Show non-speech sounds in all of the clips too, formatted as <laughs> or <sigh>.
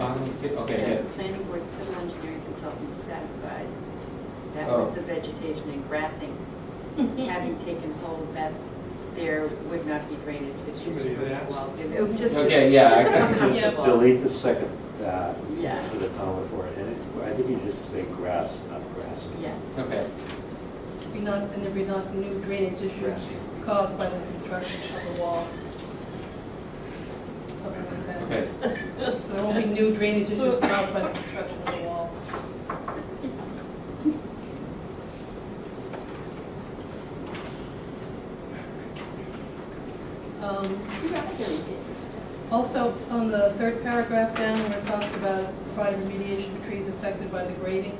Um, t- Okay, The planning board civil engineering consultant is satisfied that Oh. with the vegetation and grassing having taken hold, that there would not be drainage issues Somebody from the asked. wall. It Oh, would just, just Okay, yeah, I- sort I- of uncomfortable. Delete the second, uh, Yeah. to the comma for it, and it- I think you just say grass, not grass. Yes. yeah, okay. Be not, and there be not new drainage issues caused by the construction of the wall. Something like that. Okay, So there won't be new drainage issues caused by the construction of the wall. Um, Also, on the third paragraph down, where it talks about provide remediation of trees affected by the grading,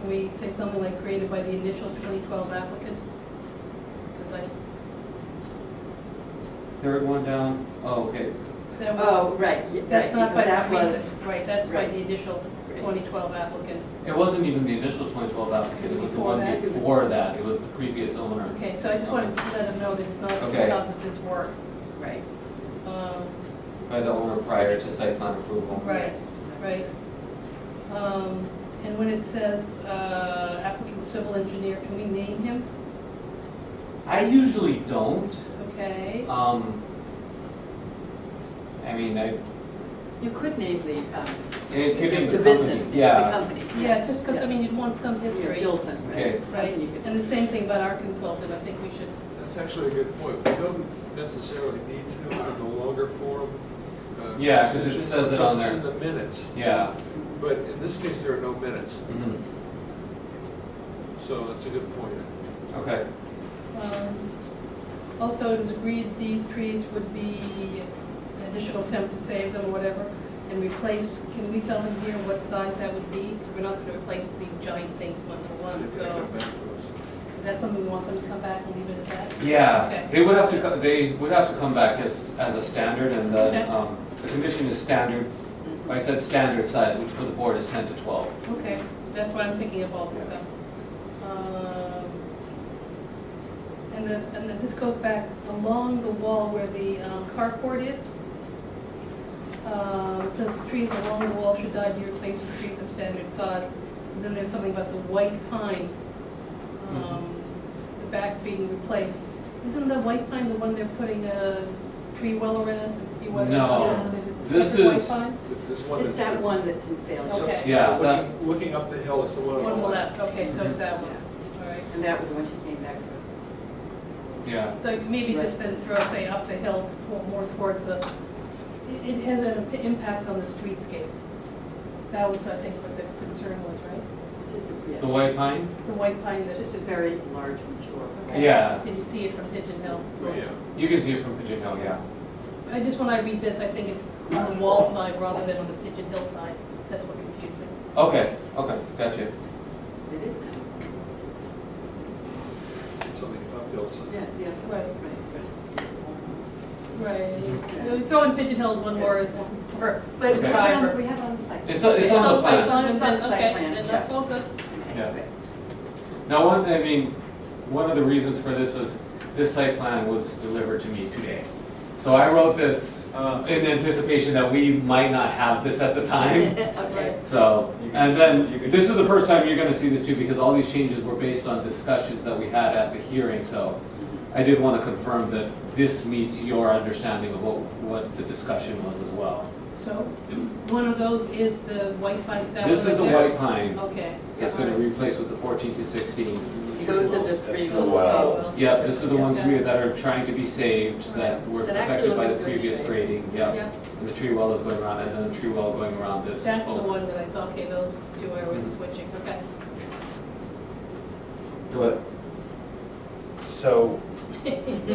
can we say something like created by the initial 2012 applicant? Because third one down, oh, okay, I, that was, Oh, right, yeah, right, that's not because by that the was, recent, right, that's by right. the initial 2012 applicant. it wasn't even the initial 2012 applicant, it was the Before one that, it was- before that, it was the previous owner. Okay, so I just wanted to let them know that it's not Okay. because of this work. right. Um, By the owner prior to site plan approval. Right, Yes. right. Um, And when it says uh, applicant civil engineer, can we name him? I usually don't, Okay, um, I mean, I, You could name the, um, it could the be the company, business, name, the yeah. company. yeah, just because, I mean, you'd want some You know, history. Gilson, Okay. right? Right, Something you could, and the same thing about our consultant, I think we should, That's actually a good point. We don't necessarily need to do it in a longer form. uh, Yeah, 'cause it says it on because there. it's in the minutes, Yeah, but in this case, there are no minutes, mhm, so that's a good point. okay, um, also, it was agreed these trees would be an additional attempt to save them, or whatever, and replace, can we tell them here what size that would be? 'Cause We're not going to replace these giant things one for They're one, gonna so come back to us. is that something we want them to come back and leave it at that? yeah, Okay. they would have to, co- they would have to come back as, as a standard, and then, Okay. um, the condition is standard, I said standard size, which for the board is 10 to 12. Okay, that's why I'm picking up all this stuff. Um, And then, and then this goes back along the wall where the um, carport is. Uh, It says trees along the wall should die to replace with trees of standard size. And then there's something about the white pine, um, Mm-hmm. the back being replaced. Isn't the white pine the one they're putting a tree well around and see whether? No. Yeah, there's a This separate white is- pine? This one it's is. that one that's in so- failure. Okay. Yeah, looking- that- Looking up the hill is the one on One the on the left. left, okay, so it's Mm-hmm. that one, all right. And that was when she came back to Yeah, So maybe just then throw, say, up the hill, or more towards the, it- it has an imp- impact on the streetscape. That was, I think, what the concern was, right? it. It's just, a- yeah, the white pine? The white pine it's that's just just, a very large mature. Okay. Yeah, did you see it from Pigeon Hill? Oh, Yeah. you can see it from Pigeon Hill, yeah. I just, when I read this, I think it's on the wall side rather than on the Pigeon Hill side. That's what confused me. Okay, okay, gotcha. It is. kind It's on the uphill of- side. Yeah, it's the other Right. Right. Right. We throwing Pigeon Hill as one more, as one more. But it's, Okay. right on- we have it on the site. It's, on- it's on the outside. plan. on the site Okay, plan, then that's all good. Yeah. Now, one, I mean, one of the reasons for this is, this site plan was delivered to me today. So I wrote this uh, in anticipation that we might not have this at the <laughs> time. Okay. So, You can- and then, you can- this is the first time you're gonna see this too, because all these changes were based on discussions that we had at the hearing, so I did wanna confirm that this meets your understanding of what, what the discussion was as well. So, one of those is the white pine, that one This is right the there? white pine Okay. that's gonna replace with the fourteen to sixteen. Those are the three That's the little well. poles. Yeah, this is the ones we, that are trying to be saved, that were That actually affected look by in the good previous shape. grading, Yeah. yep. And the tree well is going around, and then the tree well going around this. That's the oak. one that I thought, okay, those two I was switching, okay. But, so, <laughs> <laughs> <laughs> <laughs> Doing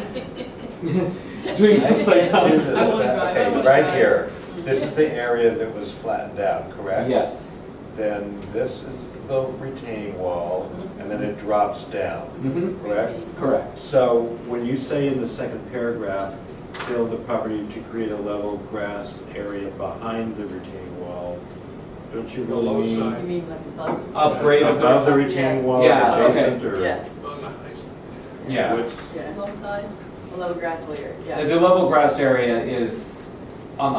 upside <laughs> this is, down. I wanna drive, I okay, wanna right drive. here, this is the area that was flattened out, correct? Yes. Then this is the retaining wall, and then it drops down, Mm-hmm. hmm correct? correct. So when you say in the second paragraph, fill the property to create a level grass area behind the retaining wall, don't you The really low mean? side, mean like the button? Upgrade of Above the, the retaining wall, Yeah, okay. adjacent, or? Yeah, on the high side. yeah. What's- yeah, Low side, below grass layer, The yeah. level grassed area is